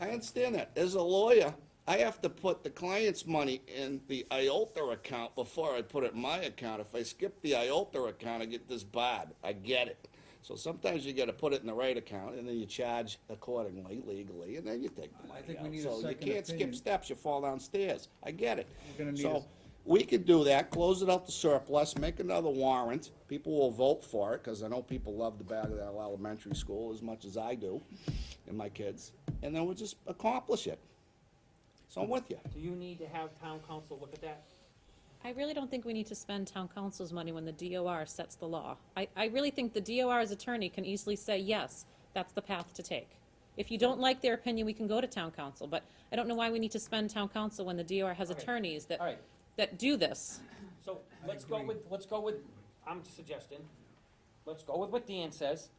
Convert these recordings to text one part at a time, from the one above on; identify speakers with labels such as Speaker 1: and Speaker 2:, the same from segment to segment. Speaker 1: I understand that. As a lawyer, I have to put the client's money in the IOLTA account before I put it in my account. If I skip the IOLTA account, I get disbarred. I get it. So sometimes you gotta put it in the right account, and then you charge accordingly legally, and then you take the
Speaker 2: I
Speaker 1: money
Speaker 2: think we
Speaker 1: out.
Speaker 2: need a
Speaker 1: So you
Speaker 2: second
Speaker 1: can't skip
Speaker 2: opinion.
Speaker 1: steps, you fall downstairs. I get it.
Speaker 2: We're gonna need
Speaker 1: So,
Speaker 2: a-
Speaker 1: we could do that, close it out to surplus, make another warrant. People will vote for it, because I know people love the Bagdell Elementary School as much as I do, and my kids. And then we'll just accomplish it. So I'm with you.
Speaker 3: Do you need to have town council look at that?
Speaker 4: I really don't think we need to spend town council's money when the DOR sets the law. I, I really think the DOR's attorney can easily say, yes, that's the path to take. If you don't like their opinion, we can go to town council, but I don't know why we need to spend town council when the DOR has
Speaker 3: Okay.
Speaker 4: attorneys that,
Speaker 3: All right.
Speaker 4: that do this.
Speaker 3: So let's go with, let's go with, I'm suggesting, let's go with what Dan says,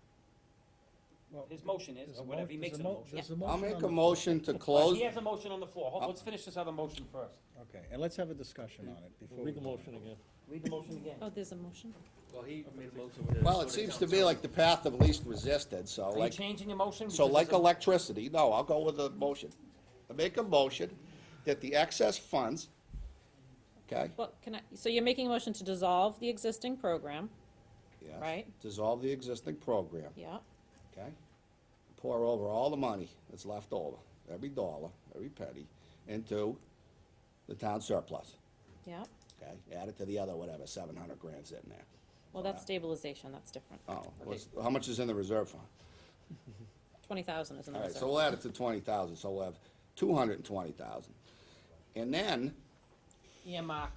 Speaker 2: Well,
Speaker 3: his motion is,
Speaker 2: there's a
Speaker 3: or
Speaker 2: mo-
Speaker 3: whatever he
Speaker 2: there's
Speaker 3: makes
Speaker 2: a
Speaker 3: a
Speaker 2: mo-
Speaker 3: motion.
Speaker 2: there's a
Speaker 1: I'll
Speaker 2: motion
Speaker 1: make
Speaker 2: on
Speaker 1: a
Speaker 2: the-
Speaker 1: motion to
Speaker 3: Uh,
Speaker 1: close.
Speaker 3: He has a motion on the floor. Hold,
Speaker 1: Uh,
Speaker 3: let's finish this other motion first.
Speaker 2: Okay, and let's have a discussion on it before.
Speaker 5: Read the
Speaker 2: we-
Speaker 5: motion again.
Speaker 3: Read the motion again.
Speaker 4: Oh, there's a motion?
Speaker 6: Well, he made a motion.
Speaker 1: Well, it seems to be like the path of least resisted, so
Speaker 3: Are you
Speaker 1: like,
Speaker 3: changing your motion?
Speaker 1: so
Speaker 3: Because
Speaker 1: like
Speaker 3: it's a-
Speaker 1: electricity, no, I'll go with the motion. I make a motion that the excess funds, okay?
Speaker 4: Well, can I, so you're making a motion to dissolve the existing program,
Speaker 1: yes,
Speaker 4: Right.
Speaker 1: Dissolve the existing program.
Speaker 4: yeah?
Speaker 1: okay? Pour over all the money that's left over, every dollar, every penny, into the town surplus,
Speaker 4: Yeah,
Speaker 1: okay? Add it to the other, whatever, seven hundred grand's in there.
Speaker 4: well, that's
Speaker 3: Uh-huh.
Speaker 4: stabilization, that's different.
Speaker 1: Oh, what's, how much is in the reserve fund?
Speaker 4: Twenty thousand is in the
Speaker 1: All right,
Speaker 4: reserve.
Speaker 1: so we'll add it to twenty thousand, so we'll have two hundred and twenty thousand. And then
Speaker 3: Earmark,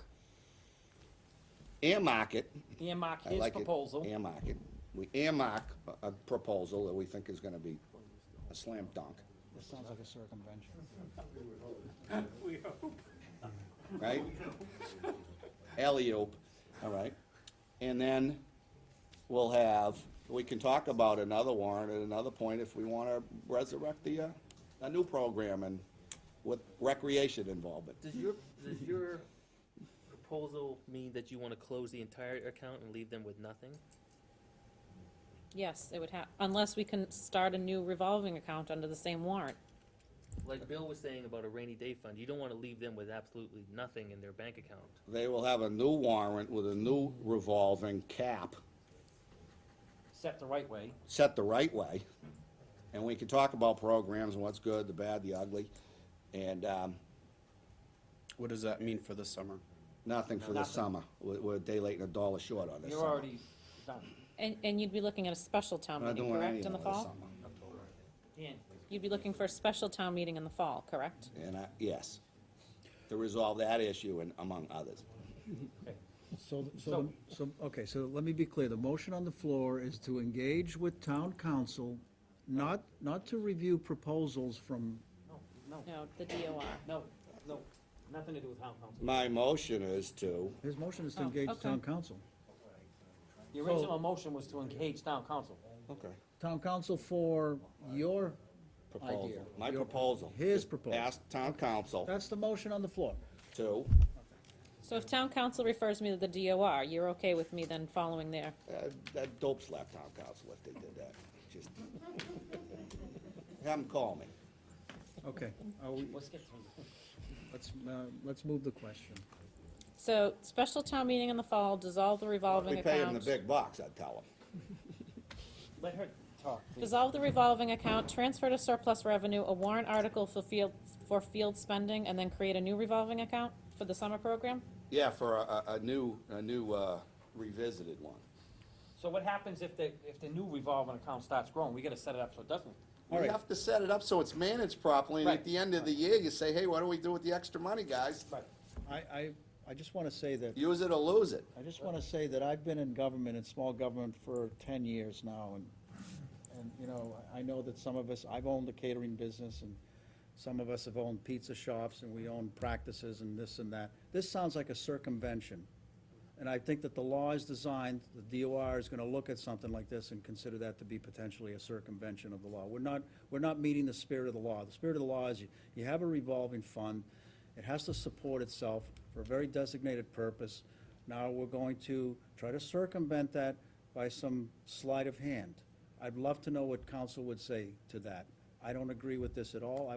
Speaker 1: earmark it,
Speaker 3: earmark
Speaker 1: I
Speaker 3: his
Speaker 1: like it.
Speaker 3: proposal.
Speaker 1: Earmark it. We earmark a- a proposal that we think is gonna be a slam dunk.
Speaker 2: This sounds like a circumvention.
Speaker 1: right? Alley-oop, all right? And then we'll have, we can talk about another warrant at another point if we want to resurrect the, uh, a new program and with recreation involvement.
Speaker 6: Does your, does your proposal mean that you wanna close the entire account and leave them with nothing?
Speaker 4: Yes, it would have, unless we can start a new revolving account under the same warrant.
Speaker 6: Like Bill was saying about a rainy day fund, you don't wanna leave them with absolutely nothing in their bank account.
Speaker 1: They will have a new warrant with a new revolving cap,
Speaker 3: Set the right way.
Speaker 1: set the right way. And we can talk about programs and what's good, the bad, the ugly, and, um,
Speaker 7: What does that mean for the summer?
Speaker 1: nothing for the
Speaker 3: Nothing.
Speaker 1: summer. We're, we're a day late and a dollar short on this
Speaker 3: You're
Speaker 1: summer.
Speaker 3: already done.
Speaker 4: And, and you'd be looking at a special town
Speaker 1: Not
Speaker 4: meeting,
Speaker 1: doing
Speaker 4: correct,
Speaker 1: anything
Speaker 4: in the
Speaker 1: this
Speaker 4: fall?
Speaker 1: summer.
Speaker 3: Dan,
Speaker 4: You'd be looking for a special town meeting in the fall, correct?
Speaker 1: And I, yes, to resolve that issue and among others.
Speaker 2: So, so, so, okay, so let me be clear. The motion on the floor is to engage with town council, not, not to review proposals from,
Speaker 3: no, no,
Speaker 4: No, the DOR.
Speaker 3: no, no, nothing to do with town council.
Speaker 1: My motion is to,
Speaker 2: his motion is to
Speaker 4: Oh,
Speaker 2: engage
Speaker 4: okay.
Speaker 2: town council.
Speaker 3: The original motion was to engage town council.
Speaker 1: okay,
Speaker 2: Town council for your,
Speaker 1: proposal,
Speaker 2: Idea.
Speaker 1: my proposal.
Speaker 2: His
Speaker 1: is
Speaker 2: proposal.
Speaker 1: Ask town council
Speaker 2: that's the motion on the floor.
Speaker 1: to,
Speaker 4: So if town council refers me to the DOR, you're okay with me then following there?
Speaker 1: uh, that dope slap town council if they did that, just. Have them call me.
Speaker 2: Okay, are we,
Speaker 3: Let's get through.
Speaker 2: let's, uh, let's move the question.
Speaker 4: So, special town meeting in the fall, dissolve the
Speaker 1: We
Speaker 4: revolving
Speaker 1: pay them the
Speaker 4: account.
Speaker 1: big bucks, I'd tell them.
Speaker 3: Let her talk, please.
Speaker 4: Dissolve the revolving account, transfer to surplus revenue, a warrant article for field, for field spending, and then create a new revolving account for the summer program?
Speaker 1: Yeah, for a, a, a new, a new, uh, revisited one.
Speaker 3: So what happens if the, if the new revolving account starts growing? We gotta set it up so it doesn't.
Speaker 1: We have to set it up so it's managed properly, and
Speaker 3: Right.
Speaker 1: at the end of the year, you say, hey, what do we do with the extra money, guys?
Speaker 3: Right.
Speaker 2: I, I, I just want to say that
Speaker 1: Use it or lose it.
Speaker 2: I just want to say that I've been in government and small government for ten years now, and, and, you know, I I know that some of us, I've owned a catering business, and some of us have owned pizza shops, and we own practices and this and that. This sounds like a circumvention, and I think that the law is designed, the DOR is gonna look at something like this and consider that to be potentially a circumvention of the law. We're not, we're not meeting the spirit of the law. The spirit of the law is you, you have a revolving fund, it has to support itself for a very designated purpose. Now, we're going to try to circumvent that by some sleight of hand. I'd love to know what council would say to that. I don't agree with this at all. I